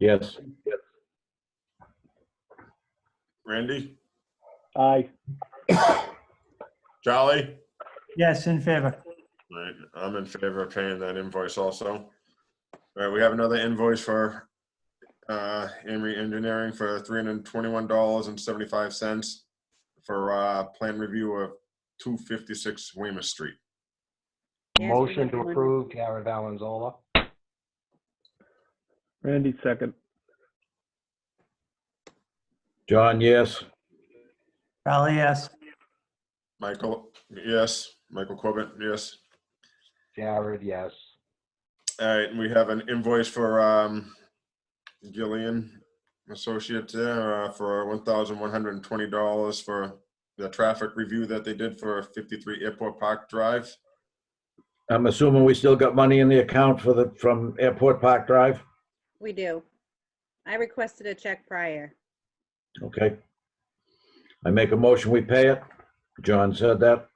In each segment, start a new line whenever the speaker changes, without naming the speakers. Yes.
Randy,
Aye.
Charlie?
Yes, in favor.
All right, I'm in favor of paying that invoice also. All right, we have another invoice for uh, Amory Engineering for $321.75 for uh, plan review of 256 Weymouth Street.
Yes, we
Motion
have
to
one.
approve, Jared Valenzola.
Randy, second.
John, yes.
Charlie, yes.
Michael, yes. Michael Corbett, yes.
Jared, yes.
All right, and we have an invoice for um, Gillian Associates there uh, for $1,120 for the traffic review that they did for 53 Airport Park Drive.
I'm assuming we still got money in the account for the, from Airport Park Drive?
We do. I requested a check prior.
Okay. I make a motion, we pay it. John said that.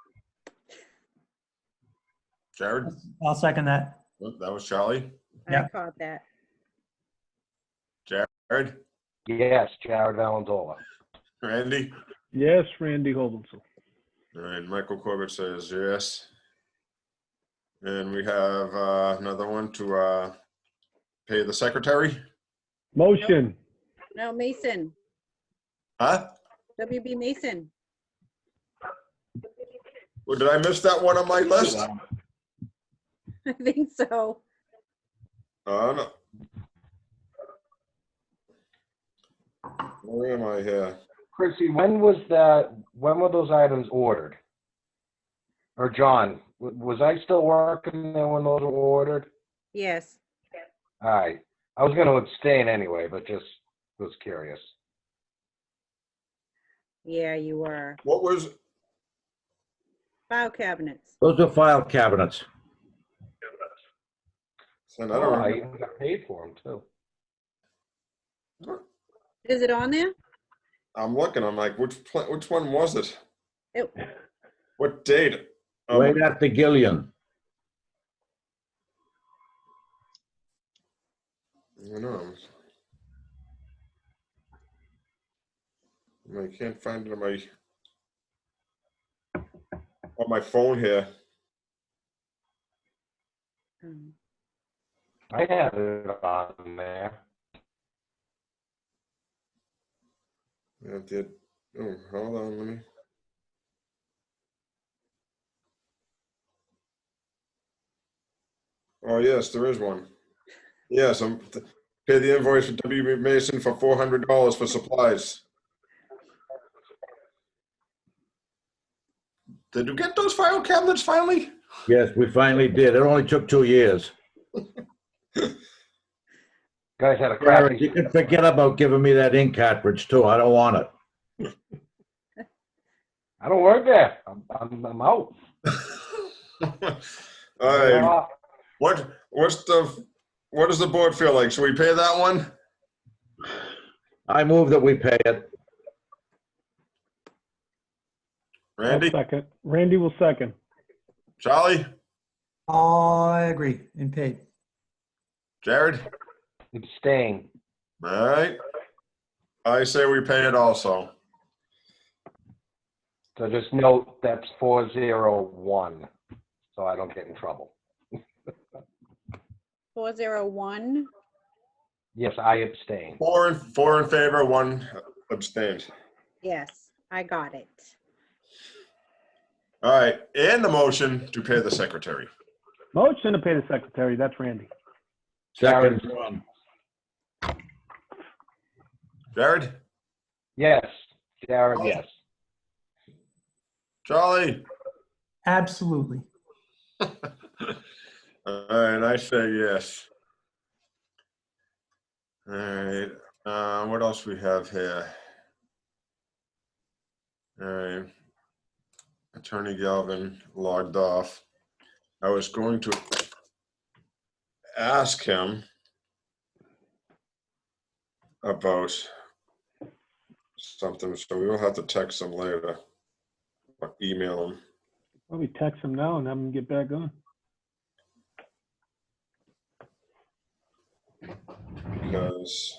Jared?
I'll second that.
Well, That was Charlie.
I
Yeah.
caught that.
Jared,
Yes, Jared Valenzola.
Randy,
Yes, Randy Hobenson.
and Michael Corbett says yes. And we have uh, another one to uh, pay the secretary.
Motion. No, Mason,
Huh?
WB Mason.
Well, did I miss that one on my list?
I think so.
Oh, no. Where am I here?
Chrissy, when was that, when were those items ordered? Or John, w- was I still working there when those were ordered?
Yes.
All right. I was going to abstain anyway, but just was curious.
Yeah, you were.
What was,
File cabinets.
Those are file cabinets.
and I
Oh,
don't
I
remember.
even got paid for them too.
Is it on there?
I'm looking, I'm like, which, pla- which one was it?
It-
What date? Um,
Right after Gillian.
I know. I'm- I can't find it on my on my phone here.
Um,
I had it on there.
I did. Oh, hold on. Let me. Oh yes, there is one. Yes, I'm pay the invoice for W. Mason for four hundred dollars for supplies. Did you get those file cabinets finally?
Yes, we finally did. It only took two years.
Guys had a
Jared,
crappy.
you can forget about giving me that ink cartridge too. I don't want it.
I don't work there. I'm, I'm, I'm out.
All
I'm
right.
off.
What what's the what does the board feel like? Should we pay that one?
I move that we pay it.
Randy,
Second. Randy will second.
Charlie,
Oh, I agree, and paid.
Jared.
Abstain.
All right. I say we pay it also.
So just note that's four zero one, so I don't get in trouble.
401.
Yes, I abstain.
Four in four in favor, one abstained.
Yes, I got it.
All right, and the motion to pay the secretary.
Motion to pay the secretary, that's Randy.
Second.
Jared.
John.
Jared,
Yes, Jared, yes.
Charlie.
Absolutely.
All right, I say yes. All right, uh, what else we have here? All right. Attorney Galvin logged off. I was going to ask him about something, so we will have to text him later. Or email him.
Let me text him now and have him get back on.
because